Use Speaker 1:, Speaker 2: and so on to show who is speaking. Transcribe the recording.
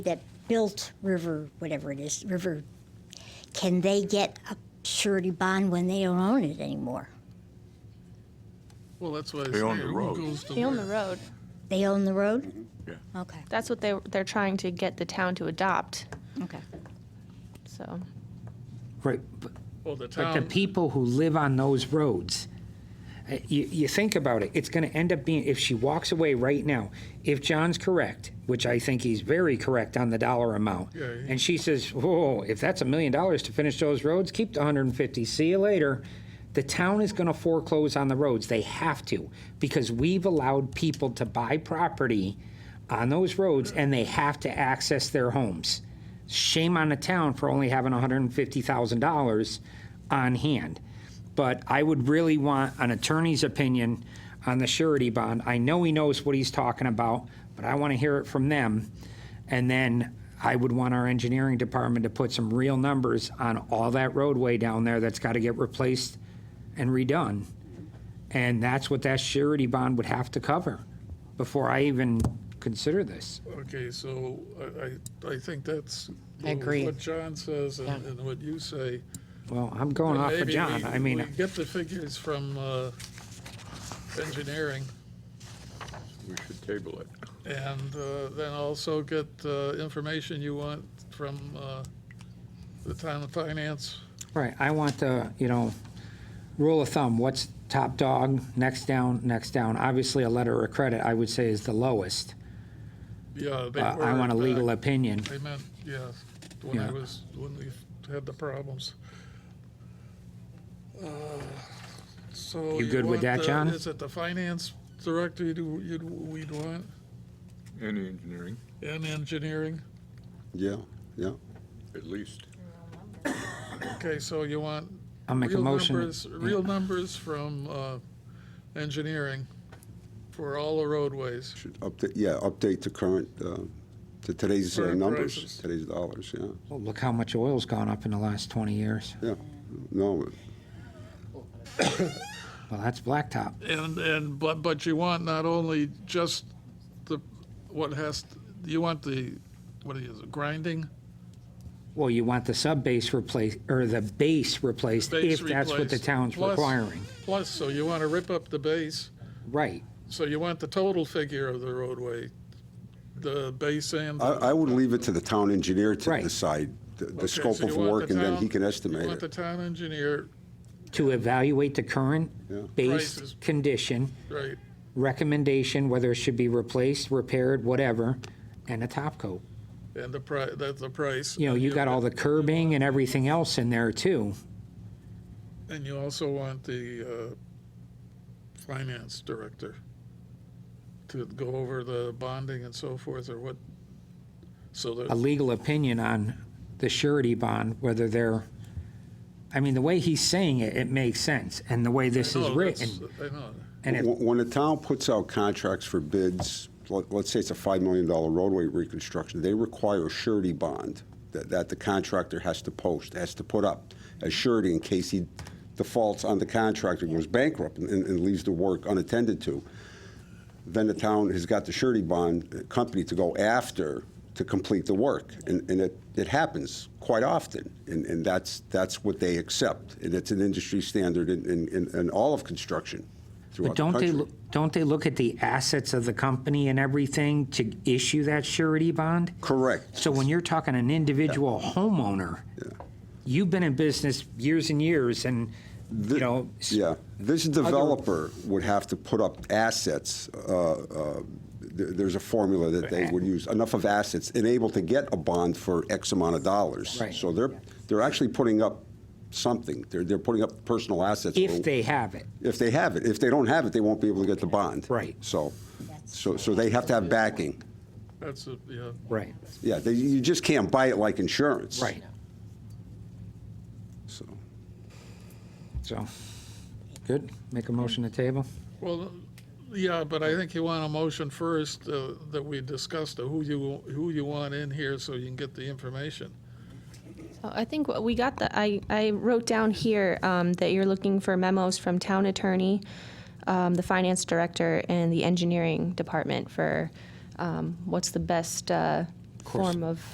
Speaker 1: that built River, whatever it is, River, can they get a surety bond when they don't own it anymore?
Speaker 2: Well, that's why I say,
Speaker 3: They own the
Speaker 2: who
Speaker 3: road.
Speaker 2: goes to
Speaker 4: They own the
Speaker 2: where?
Speaker 4: road.
Speaker 1: They own the road?
Speaker 3: Yeah.
Speaker 1: Okay,
Speaker 4: That's what they, they're trying to get the town to adopt,
Speaker 1: okay.
Speaker 4: so.
Speaker 5: Right, but
Speaker 2: Well, the
Speaker 5: but the
Speaker 2: town,
Speaker 5: people who live on those roads, uh, you, you think about it, it's gonna end up being, if she walks away right now, if John's correct, which I think he's very correct on the dollar amount,
Speaker 2: Yeah, he-
Speaker 5: and she says, whoa, if that's a million dollars to finish those roads, keep the hundred and fifty, see you later. The town is gonna foreclose on the roads, they have to, because we've allowed people to buy property on those roads and they have to access their homes. Shame on the town for only having $150,000 on hand. But I would really want an attorney's opinion on the surety bond. I know he knows what he's talking about, but I want to hear it from them. And then I would want our engineering department to put some real numbers on all that roadway down there that's got to get replaced and redone. And that's what that surety bond would have to cover before I even consider this.
Speaker 2: okay, so I, I, I think that's.
Speaker 6: Agreed.
Speaker 2: What John says and,
Speaker 6: Yeah.
Speaker 2: and what you say.
Speaker 5: Well, I'm going off of
Speaker 2: Maybe
Speaker 5: John.
Speaker 2: we-
Speaker 5: I
Speaker 2: we
Speaker 5: mean,
Speaker 2: Get the figures from, uh, engineering
Speaker 3: We should table it.
Speaker 2: and, uh, then also get, uh, information you want from, uh, the town of finance.
Speaker 5: right, I want the, you know, rule of thumb, what's top dog, next down, next down. Obviously, a letter of credit, I would say, is the lowest.
Speaker 2: Yeah, they
Speaker 5: Uh,
Speaker 2: were.
Speaker 5: I want a
Speaker 2: back.
Speaker 5: legal opinion.
Speaker 2: They meant, yeah, when I
Speaker 5: Yeah.
Speaker 2: was, when we had the problems. Uh, So.
Speaker 5: You good with
Speaker 2: want
Speaker 5: that,
Speaker 2: the-
Speaker 5: John?
Speaker 2: Is it the finance director you'd, you'd, we'd want,
Speaker 3: And engineering,
Speaker 2: and engineering?
Speaker 7: Yeah, yeah.
Speaker 3: at least.
Speaker 2: Okay, so you want
Speaker 5: I'll make a
Speaker 2: real
Speaker 5: motion.
Speaker 2: numbers, real numbers from, uh, engineering for all the roadways.
Speaker 7: Should update, yeah, update to current, uh, to today's uh,
Speaker 2: Current
Speaker 7: numbers,
Speaker 2: prices.
Speaker 7: today's dollars, yeah.
Speaker 5: Well, Oh, Look how much oil's gone up in the last 20 years.
Speaker 7: No,
Speaker 5: Well, that's blacktop.
Speaker 2: And, and, but, but you want not only just the, what has, you want the, what is it, grinding?
Speaker 5: Well, you want the sub-base replaced, or the base replaced,
Speaker 2: Base
Speaker 5: if that's what the
Speaker 2: replaced.
Speaker 5: town's
Speaker 2: Plus-
Speaker 5: requiring.
Speaker 2: Plus, so you want to rip up the base,
Speaker 5: Right.
Speaker 2: so you want the total figure of the roadway, the base and. the-
Speaker 7: I, I would leave it to the town engineer to
Speaker 5: Right.
Speaker 7: decide the- the
Speaker 2: Okay,
Speaker 7: scope
Speaker 2: so you
Speaker 7: of
Speaker 2: want
Speaker 7: work,
Speaker 2: the
Speaker 7: and then
Speaker 2: town-
Speaker 7: he can
Speaker 2: You
Speaker 7: estimate
Speaker 2: want the
Speaker 7: it.
Speaker 2: town engineer,
Speaker 5: To evaluate the current
Speaker 7: Yeah.
Speaker 5: base
Speaker 2: Prices.
Speaker 5: condition,
Speaker 2: right,
Speaker 5: recommendation, whether it should be replaced, repaired, whatever, and a top coat.
Speaker 2: and the pri, that's the price.
Speaker 5: You know, you got all the curbing and everything else in there too.
Speaker 2: And you also want the, uh, finance director to go over the bonding and so forth, or what, so
Speaker 5: A
Speaker 2: that,
Speaker 5: legal opinion on the surety bond, whether they're, I mean, the way he's saying it, it makes sense. And the way this
Speaker 7: Oh,
Speaker 5: is
Speaker 2: No, that's-
Speaker 5: written,
Speaker 2: I know,
Speaker 5: and if,
Speaker 7: When when the town puts out contracts for bids, let- let's say it's a $5 million roadway reconstruction, they require a surety bond that, that the contractor has to post, has to put up as surety in case he defaults on the contractor, goes bankrupt, and, and leaves the work unattended to. then the town has got the surety bond company to go after to complete the work. And, and it, it happens quite often, and, and that's, that's what they accept. And it's an industry standard in, in- in, in all of construction
Speaker 5: but
Speaker 7: throughout the
Speaker 5: don't they,
Speaker 7: country.
Speaker 5: loo- don't they look at the assets of the company and everything to issue that surety bond?
Speaker 7: Correct.
Speaker 5: So when you're talking an individual homeowner, you've been in business years and years and, you know, s-
Speaker 7: Yeah. This developer would have to put up assets. uh, uh, th- There's a formula that they would use, enough of assets, and able to get a bond for X amount of dollars.
Speaker 5: Right.
Speaker 7: So they're, they're actually putting up something. They're, they're putting up personal assets.
Speaker 5: if they have it.
Speaker 7: If they have it. If they don't have it, they won't be able to get the bond.
Speaker 5: Right.
Speaker 7: So, so, so they have to have backing.
Speaker 2: that's, a- yeah.
Speaker 5: Right.
Speaker 7: Yeah, they, you just can't buy it like insurance.
Speaker 5: Right.
Speaker 7: So,
Speaker 5: So, good, make a motion to table?
Speaker 2: Well, yeah, but I think you want a motion first uh, that we discuss the who you, who you want in here so you can get the information.
Speaker 4: Oh, I think what we got the, I, I wrote down here um, that you're looking for memos from town attorney, um, the finance director, and the engineering department for um, what's the best uh,
Speaker 5: course.
Speaker 4: form of